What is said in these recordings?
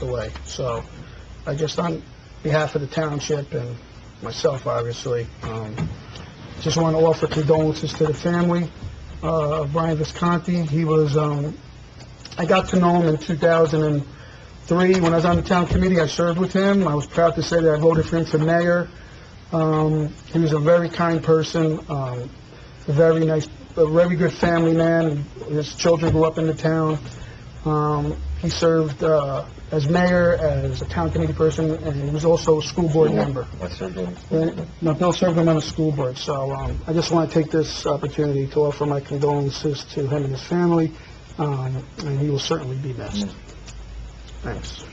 the way. So I just, on behalf of the township and myself, obviously, um, just want to offer condolences to the family uh, of Brian Visconti. He was, um, I got to know him in 2003, when I was on the town committee, I served with him. I was proud to say that I voted for him for mayor. Um, He was a very kind person, um, a very nice, a very good family man. His children grew up in the town. Um, He served uh, as mayor, as a town committee person, and he was also a school board member. I served on the school board. No, Bill served him on the school board, so um, I just want to take this opportunity to offer my condolences to him and his family, um, and he will certainly be missed. Thanks.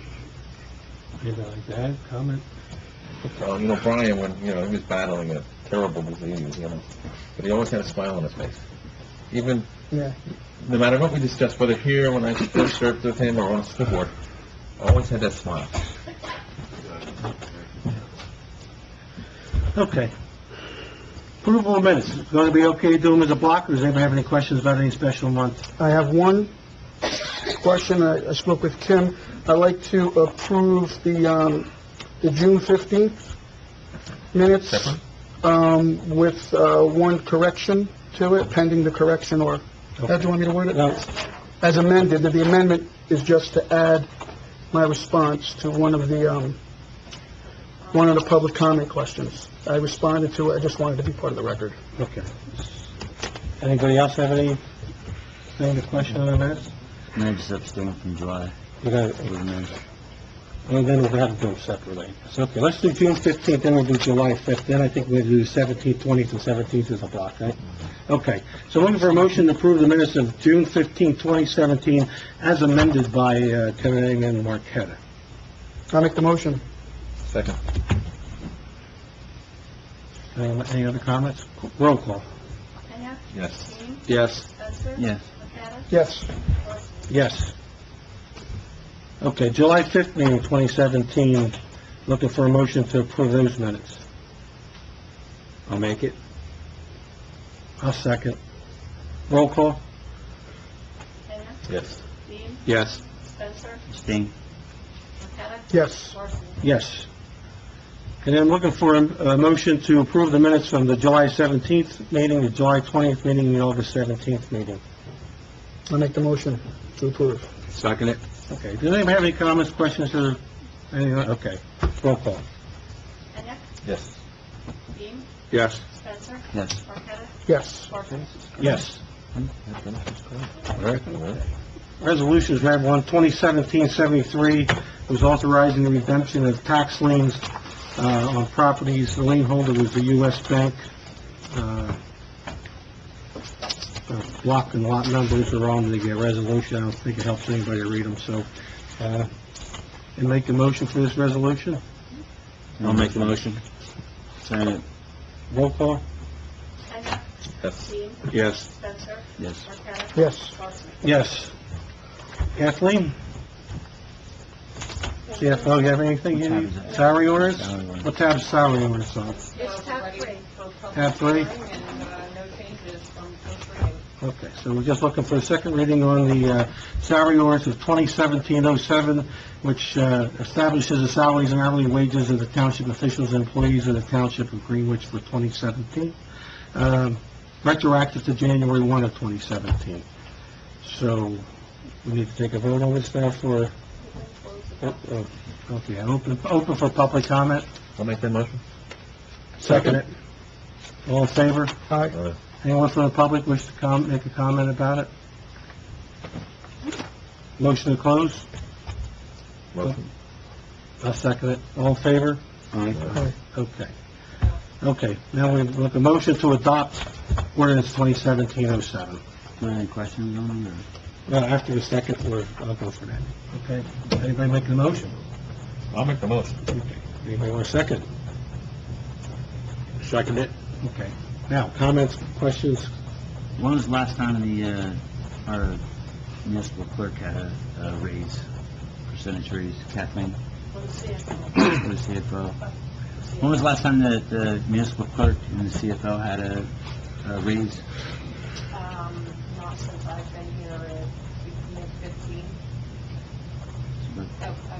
Anything like that, comment? Uh, you know, Brian, when, you know, he was battling a terrible disease, you know, but he always had a smile on his face. Even, Yeah. no matter what we discussed, whether here, when I first served with him, or on the school board, always had that smile. Okay. Approval of minutes, going to be okay to do them as a block, or does anybody have any questions about any special month? I have one question. I I spoke with Kim. I'd like to approve the, um, the June 15th minutes. Second. Um, with, uh, one correction to it, pending the correction or, how do you want me to word it? No. As amended, that the amendment is just to add my response to one of the, um, one of the public comment questions. I responded to it. I just wanted to be part of the record. Okay. Anybody else have any, any question on the minutes? No, just abstain from July. We're gonna- And then we'll have to do them separately. So, okay, let's do June fifteenth, then we'll do July fifth, then I think we'll do seventeenth, twentieth, and seventeenth as a block, right? Okay, so looking for a motion to approve the minutes of June fifteenth, twenty seventeen, as amended by, uh, Kevin Egan and Mark Hedda. I make the motion. Second. Any, Uh, any other comments? Roll call. Kenya? Yes. Dean? Yes. Spencer? Yes. Marqueta? Yes. Yes. Okay, July fifth meeting, twenty seventeen, looking for a motion to approve those minutes. I'll make it. I'll second. Roll call? Kenya? Yes. Dean? Yes. Spencer? Abstain. Marqueta? Yes. Horstman? Yes. And then looking for a, a motion to approve the minutes from the July seventeenth meeting, the July twentieth meeting, and the August seventeenth meeting. I make the motion to approve. Second it. Okay, does anyone have any comments, questions, or any, okay, roll call. Kenya? Yes. Dean? Yes. Spencer? Yes. Marqueta? Yes. Horstman? Yes. Very good. Resolutions, we have one, 2017-73, was authorizing the redemption of tax liens uh, on properties. The lien holder was the U.S. Bank. Uh, uh, Block and lot numbers are on the uh, resolution. I don't think it helps anybody to read them, so, uh, and make a motion for this resolution. I'll make the motion. Sign it. Roll call? Kenya? Yes. Dean? Yes. Spencer? Yes. Marqueta? Yes. Horstman? Yes. Kathleen? CFO, you have anything you need? Salary orders? Salary orders. What tab is salary orders on? It's tab three. Tab three? And, uh, no changes from first reading. Okay, so we're just looking for a second reading on the uh, salary orders of 2017-07, which uh, establishes the salaries and hourly wages of the township officials and employees of the township of Greenwich for 2017, um, retroactive to January 1 of 2017. So we need to take a vote on this now for, oh, oh, okay, open, open for public comment? I'll make that motion. Second it. All in favor? Aye. Uh, Anyone from the public wish to com, make a comment about it? Motion to close? motion. I'll second it. All in favor? Aye. Okay. Okay, now we look, a motion to adopt ordinance 2017-07. Any questions on it, or? Well, after the second, we're, I'll go for that. Okay, anybody make the motion? I'll make the motion. Anybody want a second? Second it. Okay. Now, comments, questions? When was the last time the, uh, our municipal clerk had a, a raise, percentage raise, Kathleen? Let's see. For the CFO? When was the last time that the municipal clerk and the CFO had a, a raise? um,